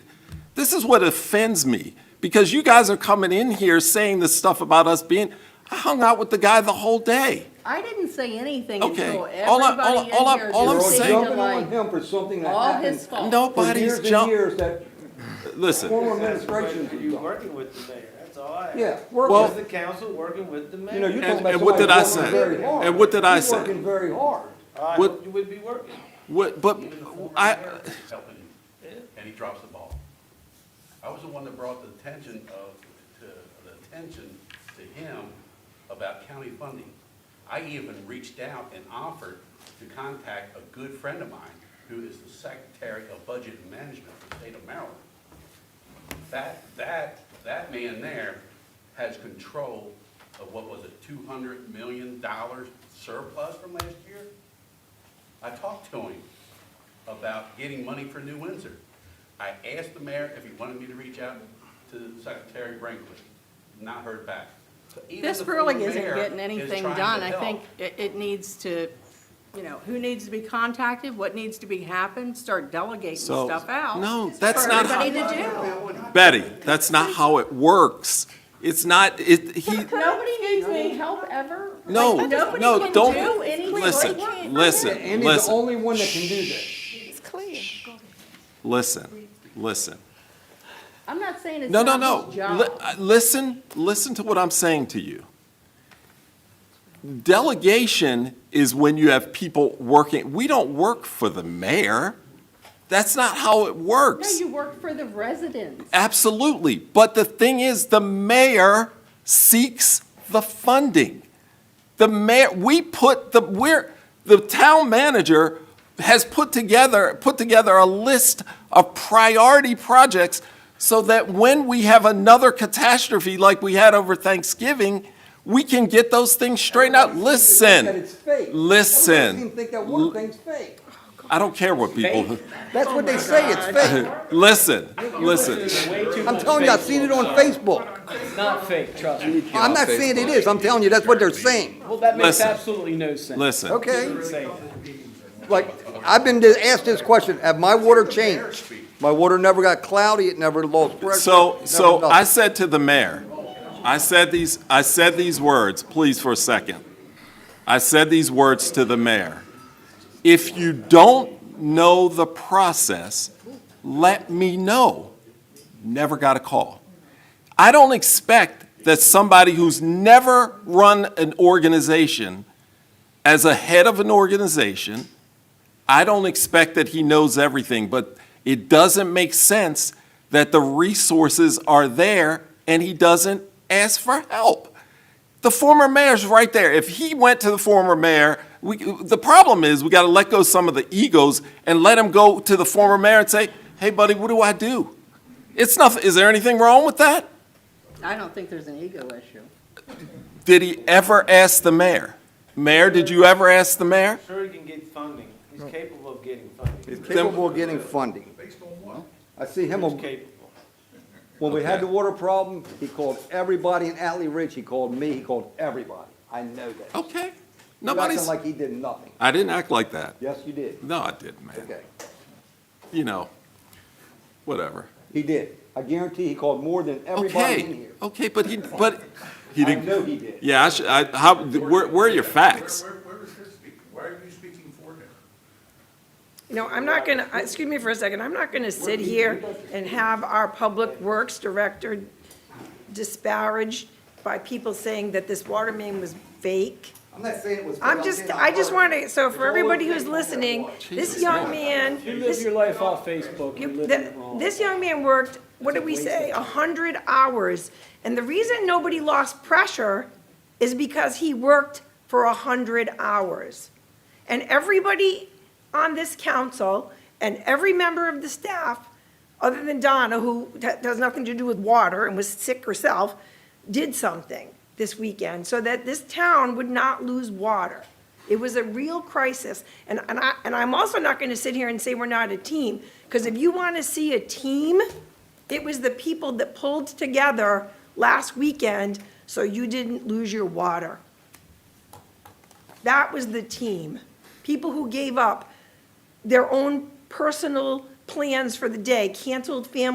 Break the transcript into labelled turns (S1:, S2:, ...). S1: This is what offends me, because you guys are coming in here saying this stuff about us being, I hung out with the guy the whole day.
S2: I didn't say anything
S1: Okay.
S2: until
S1: All I- all I-
S2: everybody
S1: all I-
S2: in here
S1: all I'm
S2: just
S1: saying-
S2: seemed to
S3: Jumping on
S2: like,
S3: him for something that
S2: all his
S3: happened
S2: fault.
S3: for
S1: Nobody's
S3: years and
S1: jumping.
S3: years that
S1: listen,
S3: former
S4: Administration,
S3: administrations
S4: are
S3: have
S4: you
S3: done.
S4: working with the mayor? That's all I ask.
S3: Yeah,
S1: Well-
S3: working,
S4: Is the council working with the mayor?
S3: you know, you're talking
S1: And-
S3: about
S1: and what did I
S3: somebody working
S1: say?
S3: very hard.
S1: And what did I
S3: He's
S1: say?
S3: working very hard.
S4: I
S1: What-
S4: hope you would be working.
S1: what, but,
S5: Even the former
S1: I,
S5: mayor is helping him, and he drops the ball. I was the one that brought the attention of, to, the attention to him about county funding. I even reached out and offered to contact a good friend of mine, who is the Secretary of Budget and Management for the state of Maryland. That, that, that man there has control of what was a two hundred million dollar surplus from last year? I talked to him about getting money for New Windsor. I asked the mayor if he wanted me to reach out to Secretary Brinkley, not heard back. So even
S2: This
S5: the
S2: really
S5: former
S2: isn't
S5: mayor
S2: getting
S5: is
S2: anything
S5: trying to
S2: done. I
S5: help.
S2: think it, it needs to, you know, who needs to be contacted, what needs to be happened, start delegating
S1: So-
S2: stuff out.
S1: No, that's not how-
S2: For everybody to
S1: Betty, that's not how it works. It's not, it, he,
S2: do. Nobody needs any help ever.
S1: No,
S2: Like,
S1: no, don't-
S2: Nobody can do anything.
S1: listen,
S2: Like,
S1: listen.
S3: Andy's the
S1: listen.
S3: only one that can do that.
S6: It's clear.
S1: listen, listen.
S2: I'm not saying it's
S1: No, no,
S2: not
S1: no. Li-
S2: his job.
S1: uh, Listen, listen to what I'm saying to you. Delegation is when you have people working, we don't work for the mayor. That's not how it
S2: No,
S1: works.
S2: you work for the residents.
S1: Absolutely. But the thing is, the mayor seeks the funding. The mayor, we put the, we're, the town manager has put together, put together a list of priority projects so that when we have another catastrophe like we had over Thanksgiving, we can get those things straightened out.
S3: Everybody seems to
S1: Listen.
S3: think That it's fake. Everybody seems to
S1: Listen.
S3: think that one thing's fake.
S1: I don't care what people,
S3: That's what they say, it's fake.
S1: listen, listen.
S3: I'm telling you, I've seen it on Facebook.
S7: It's not fake, trust me.
S3: I'm not saying it is, I'm telling you, that's what they're saying,
S7: Well, that makes
S1: Listen.
S7: absolutely no sense.
S1: Listen.
S3: okay?
S7: Say that.
S3: Like, I've been asked this question, have my water changed? My water never got cloudy, it never lost pressure.
S1: So,
S3: never
S1: so
S3: nothing.
S1: I said to the mayor, I said these, I said these words, please for a second. I said these words to the mayor. If you don't know the process, let me know. Never got a call. I don't expect that somebody who's never run an organization as a head of an organization, I don't expect that he knows everything, but it doesn't make sense that the resources are there and he doesn't ask for help. The former mayor's right there. If he went to the former mayor, we, the problem is we got to let go some of the egos and let him go to the former mayor and say, "Hey, buddy, what do I do?" It's nothing. Is there anything wrong with that?
S2: I don't think there's an ego issue.
S1: Did he ever ask the mayor? Mayor, did you ever ask the mayor?
S4: Sure he can get funding. He's capable of getting funding.
S3: He's capable of getting funding. I see him,
S4: He's
S3: when
S4: capable.
S3: we had the water problem, he called everybody in Atlee Ridge, he called me, he called everybody. I know that. You're
S1: Okay.
S3: Acting
S1: Oh, Nobody's.
S3: like he did nothing.
S1: I didn't act like that.
S3: Yes, you did.
S1: No, I didn't, man.
S3: Okay.
S1: You know, whatever.
S3: He did. I guarantee he called more than everybody in
S1: Okay,
S3: here.
S1: okay, but he, but he
S3: I
S1: didn't.
S3: know he did.
S1: Yeah, I should, I, how, where, where are your facts?
S5: Where, where- where is this speaking? Why are you speaking for him?
S8: No, I'm not going to, excuse me for a second, I'm not going to sit here and have our Public Works Director disparaged by people saying that this water main was fake.
S3: I'm not saying it was.
S8: I'm just, I just want to, so for everybody who's listening, this young man,
S7: You live
S8: this,
S7: your life off Facebook, you're
S8: you-
S7: living
S8: the-
S7: it wrong.
S8: this young man worked, what did we say, a hundred hours. And the reason nobody lost pressure is because he worked for a hundred hours. And everybody on this council and every member of the staff, other than Donna, who t- has nothing to do with water and was sick herself, did something this weekend so that this town would not lose water. It was a real crisis. And, and I, and I'm also not going to sit here and say we're not a team, because if you want to see a team, it was the people that pulled together last weekend so you didn't lose your water. That was the team. People who gave up their own personal plans for the day, canceled family